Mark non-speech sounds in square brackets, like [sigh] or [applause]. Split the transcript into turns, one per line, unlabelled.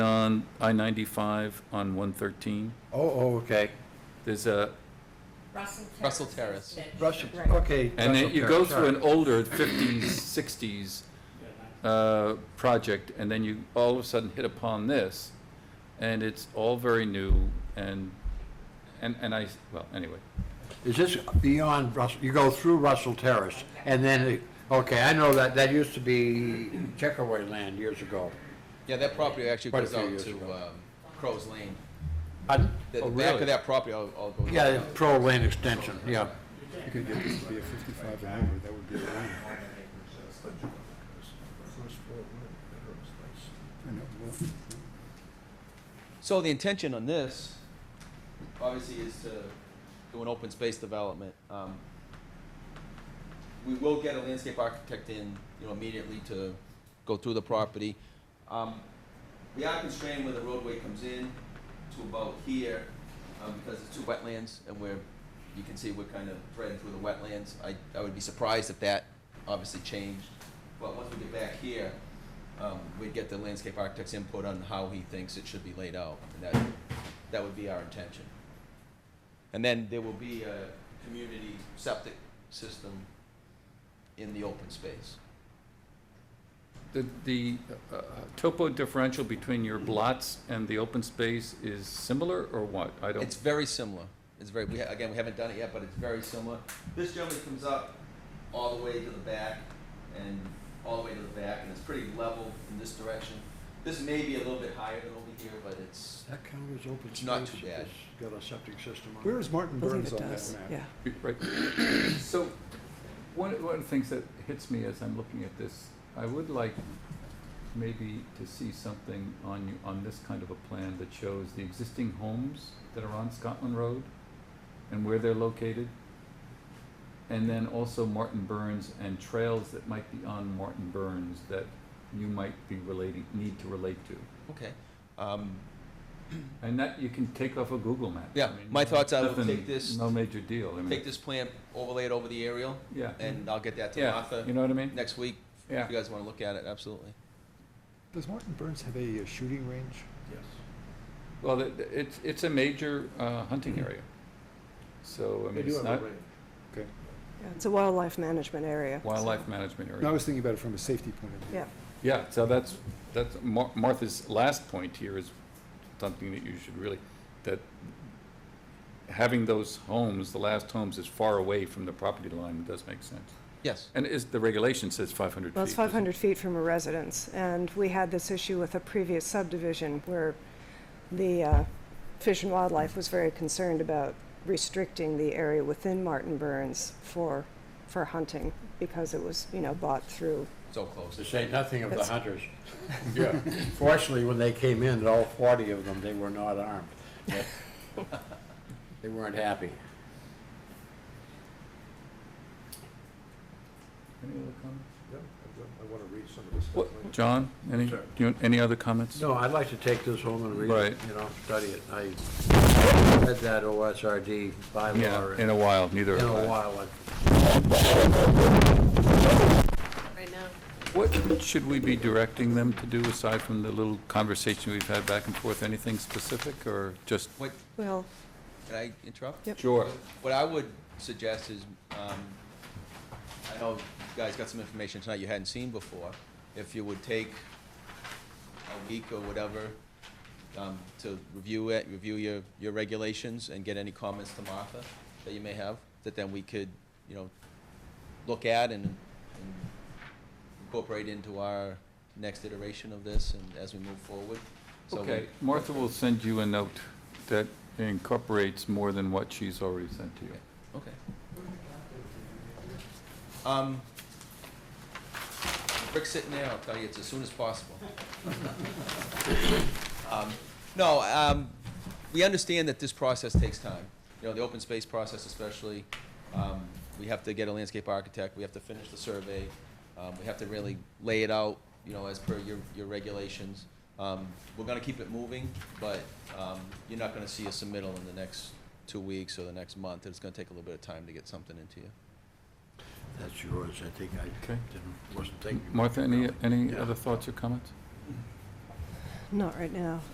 on I-95 on 113.
Oh, oh, okay.
There's a,
Russell Terrace.
Russell Terrace.
instead.
Russell,
Right.
okay.
and
Russell
then you go
Terrace,
through
all
an
right.
older 50s, 60s uh, project, and then you all of a sudden hit upon this, and it's all very new, and, and and I, well, anyway.
Is this beyond Russell, you go through Russell Terrace, and then, it- okay, I know that, that used to be Checkaway land years ago.
Yeah, that property actually
Quite a
goes
few
out
years
to
ago.
um, Crow's Lane.
Pardon?
The
Oh,
the back
really?
of that property all all goes.
Yeah,
out.
pro lane extension, yeah.
You could get this to be a fifty-five and over, that would be a win. I know, well,
So the intention on this, obviously, is to do an open space development. Um, We will get a landscape architect in, you know, immediately to go through the property. Um, We are constrained where the roadway comes in to about here, um, because it's two wetlands, and we're, you can see we're kind of threading through the wetlands. I, I would be surprised if that obviously changed, but once we get back here, um, we'd get the landscape architect's input on how he thinks it should be laid out, and that, that would be our intention. And then there will be a community septic system in the open space.
The, the uh, uh, topo differential between your blots and the open space is similar, or what? I don't,
It's very similar. It's very, we, ha- again, we haven't done it yet, but it's very similar. This generally comes up all the way to the back and all the way to the back, and it's pretty level in this direction. This may be a little bit higher than over here, but it's,
That count as open
It's not too bad.
It's Got a septic system on it.
Where is Martin
believe
Burns
it
on that
does,
map?
yeah.
right. So, one, one of the things that hits me as I'm looking at this, I would like maybe to see something on you, on this kind of a plan that shows the existing homes that are on Scotland Road and where they're located. And then also Martin Burns and trails that might be on Martin Burns that you might be relating, need to relate to.
okay. Um,
And that you can take off of Google Maps.
Yeah,
I mean,
my thoughts, I would
nothing-
take this-
No major deal, I mean,
Take this plan, overlay it over the aerial,
yeah,
and I'll get that to
yeah, you
Martha
know what I mean?
next week.
Yeah.
If you guys wanna look at it, absolutely.
Does Martin Burns have a uh, shooting range?
Well, it- it's, it's a major uh, hunting area. So, I mean, it's not
Yeah, It's a wildlife management area. so-
wildlife management
No, I
area.
was thinking about it from a safety point of view.
Yeah,
Yeah, so that's, that's, Mar- Martha's last point here is something that you should really, that having those homes, the last homes is far away from the property line, does make sense.
Yes.
And is, the regulation says five hundred feet.
well, it's
doesn't it?
500 feet from a residence, and we had this issue with a previous subdivision where the uh, Fish and Wildlife was very concerned about restricting the area within Martin Burns for, for hunting, because it was, you know, bought through.
So close.
To say nothing of the
That's-
[laughs] hunters. Yeah. Fortunately, when they came in, all forty of them, they were not armed. They weren't happy.
Any other comments?
Yeah, I want to read some of this
What, John, any,
Sure.
do you- any other comments?
No, I'd like to take this home and read it,
Right.
you know, study it. I read that OSRD
Yeah,
bylaw
in
in
a while, neither
in
have I.
a while. I-
Right now.
What should we be directing them to do aside from the little conversation we've had back and forth? Anything specific or just?
What,
Well,
can I interrupt?
Yep.
Sure.
What I would suggest is, um, I know you guys got some information tonight you hadn't seen before. If you would take a week or whatever, um, to review it, review your, your regulations and get any comments to Martha that you may have, that then we could, you know, look at and, and incorporate into our next iteration of this and as we move forward. So we-
Okay, Martha will send you a note that incorporates more than what she's already sent to you.
Okay. Um, Rick's sitting there, I'll tell you, it's as soon as possible. [laughs] Um, No, um, we understand that this process takes time. You know, the open space process especially, um, we have to get a landscape architect, we have to finish the survey, um, we have to really lay it out, you know, as per your, your regulations. Um, we're gonna keep it moving, but, um, you're not gonna see a submittal in the next two weeks or the next month. It's gonna take a little bit of time to get something into you.
That's yours, I think I
Okay.
didn't, wasn't thinking.
Martha, any, any
Yeah.
other thoughts or comments?
Not right now.